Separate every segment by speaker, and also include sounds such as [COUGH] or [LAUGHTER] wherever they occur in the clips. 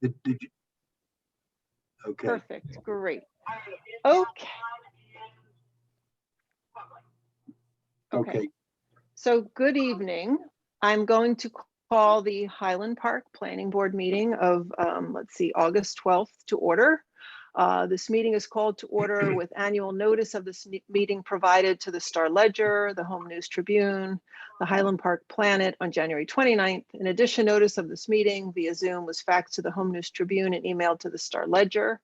Speaker 1: Did, did you? Okay,
Speaker 2: Perfect, great. Okay.
Speaker 1: okay.
Speaker 2: So good evening. I'm going to call the Highland Park Planning Board meeting of, um, let's see, August 12th to order. Uh, This meeting is called to
Speaker 1: [CLEARS THROAT]
Speaker 2: order with annual notice of this me- meeting provided to the Star Ledger, the Home News Tribune, the Highland Park Planet on January 29th. In addition, notice of this meeting via Zoom was faxed to the Home News Tribune and emailed to the Star Ledger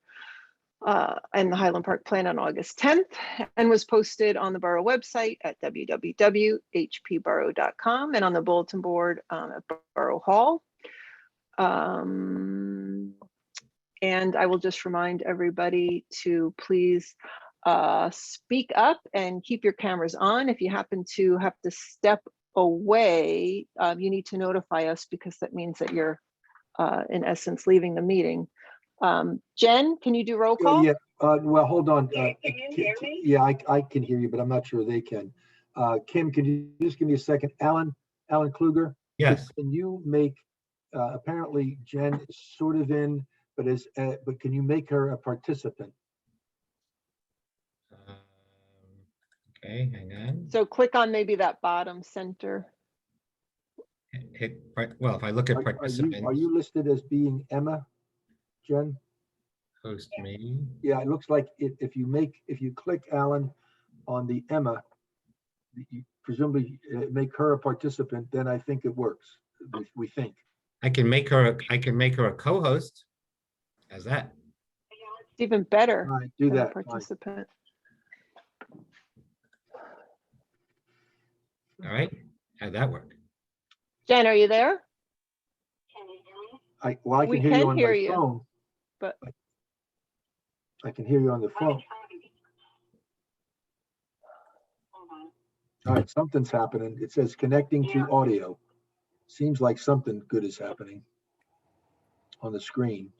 Speaker 2: uh, and the Highland Park Plan on August 10th and was posted on the Borough website at www.hpborough.com and on the bulletin board um, at Borough Hall. Um, And I will just remind everybody to please uh, speak up and keep your cameras on. If you happen to have to step away, um, you need to notify us because that means that you're uh, in essence leaving the meeting. Um, Jen, can you do roll
Speaker 1: Yeah,
Speaker 2: call?
Speaker 1: yeah, uh, well, hold on.
Speaker 3: Yeah,
Speaker 1: uh,
Speaker 3: can you hear me?
Speaker 1: Yeah, I, I can hear you, but I'm not sure they can. Uh, Kim, could you just give me a second? Alan, Alan Kluger?
Speaker 4: Yes,
Speaker 1: Can you make, uh, apparently Jen is sort of in, but is, uh, but can you make her a participant?
Speaker 4: Um, Okay, hang on.
Speaker 2: So click on maybe that bottom center.
Speaker 4: Hit- hit part- Well, if I look at
Speaker 1: Are- Are you- are
Speaker 4: participants,
Speaker 1: you listed as being Emma, Jen?
Speaker 4: host me,
Speaker 1: Yeah, it looks like if, if you make, if you click Alan on the Emma, you presumably uh, make her a participant, then I think it works, we- we think.
Speaker 4: I can make her, a- I can make her a co-host. How's that?
Speaker 2: It's even better
Speaker 1: All right, do
Speaker 2: than a
Speaker 1: that. fine.
Speaker 2: participant.
Speaker 4: All right, how'd that work?
Speaker 2: Jen, are you there?
Speaker 1: I, well, I
Speaker 2: We
Speaker 1: can hear
Speaker 2: can
Speaker 1: you on
Speaker 2: hear
Speaker 1: my
Speaker 2: you,
Speaker 1: phone.
Speaker 2: but-
Speaker 1: I can hear you on the phone. All right, something's happening. It says connecting to audio. Seems like something good is happening on the screen.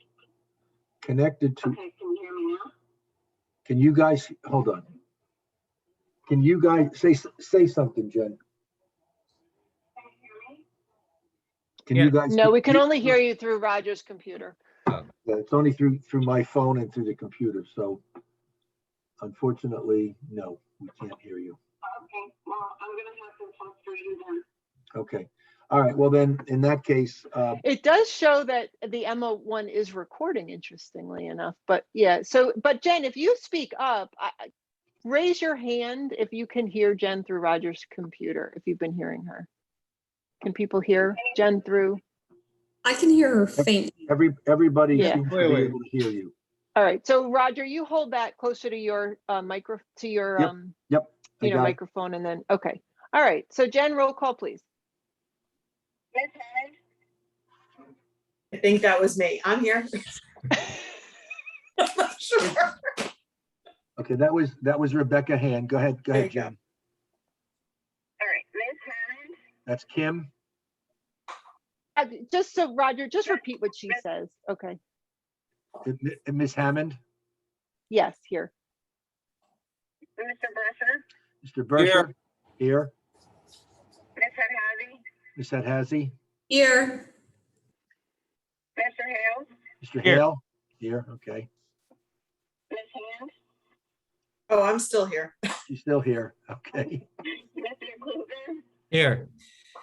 Speaker 1: Connected to,
Speaker 3: Okay, can you hear me now?
Speaker 1: can you guys, hold on. Can you guys say, s- say something, Jen?
Speaker 3: Can you hear me?
Speaker 1: Can you
Speaker 4: Yeah.
Speaker 1: guys?
Speaker 2: No, we can only hear you through Roger's computer.
Speaker 1: Yeah, It's only through, through my phone and through the computer, so unfortunately, no, we can't hear you.
Speaker 3: Okay, well, I'm gonna have to talk through you then.
Speaker 1: Okay, all right, well then, in that case, uh,
Speaker 2: It does show that the Emma one is recording, interestingly enough, but yeah, so, but Jen, if you speak up, I, I- raise your hand if you can hear Jen through Roger's computer, if you've been hearing her. Can people hear Jen through?
Speaker 5: I can hear her faint.
Speaker 1: every, everybody
Speaker 2: Yeah.
Speaker 1: seems to
Speaker 4: Wait,
Speaker 1: be
Speaker 4: wait.
Speaker 1: able to hear you.
Speaker 2: All right, so Roger, you hold that closer to your uh, micro, to your,
Speaker 1: Yep,
Speaker 2: um,
Speaker 1: I
Speaker 2: you know,
Speaker 1: got it.
Speaker 2: microphone and then, okay. All right, so Jen, roll call, please.
Speaker 3: Ms. Hammond?
Speaker 6: I think that was me. I'm here. I'm not sure.
Speaker 1: Okay, that was, that was Rebecca Hand, go ahead, go ahead,
Speaker 6: There you go.
Speaker 1: Jen.
Speaker 3: All right, Ms. Hammond,
Speaker 1: That's Kim,
Speaker 2: Uh, Just so Roger, just
Speaker 3: Sure.
Speaker 2: repeat what she says. Okay.
Speaker 1: and Mi- and Ms. Hammond,
Speaker 2: Yes, here.
Speaker 3: Mr. Bresser,
Speaker 1: Mr. Berger, here,
Speaker 3: Ms. Hadhazy,
Speaker 1: Ms. Adhazi,
Speaker 5: Here,
Speaker 3: Mr. Hales,
Speaker 1: Mr. Hale, here, okay,
Speaker 3: Ms. Hand,
Speaker 6: Oh, I'm still here.
Speaker 1: she's still here, [LAUGHS] okay.
Speaker 3: Mr. Kluger,
Speaker 4: Here,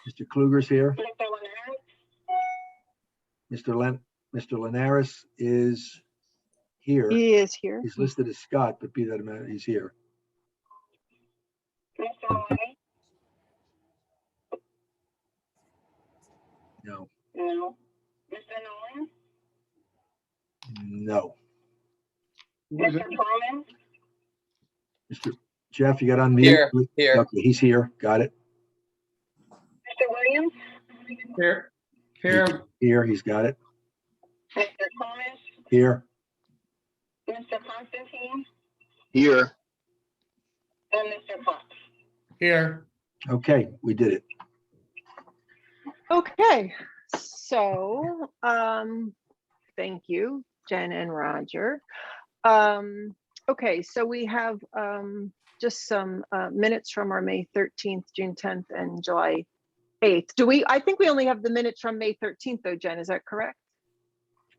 Speaker 1: Mr. Kluger's here.
Speaker 3: Mr. Lennart,
Speaker 1: Mr. Len, Mr. Linares is here.
Speaker 2: He is here.
Speaker 1: He's listed as Scott, but be that a minute, he's here.
Speaker 3: Mr. White.
Speaker 1: No,
Speaker 3: No. Mr. Nolan,
Speaker 1: no.
Speaker 3: Mr. Perlman,
Speaker 1: Mr. Jeff, you got on mute?
Speaker 7: Here, here.
Speaker 1: Okay, he's here. Got it.
Speaker 3: Mr. Williams,
Speaker 7: Here, here,
Speaker 1: Here, he's got it.
Speaker 3: Mr. Thomas,
Speaker 1: Here,
Speaker 3: Mr. Constantine,
Speaker 8: Here,
Speaker 3: and Mr. Fox.
Speaker 7: here.
Speaker 1: okay, we did it.
Speaker 2: Okay, so, um, thank you, Jen and Roger. Um, okay, so we have, um, just some, uh, minutes from our May 13th, June 10th and July 8th. Do we, I think we only have the minutes from May 13th though, Jen, is that correct?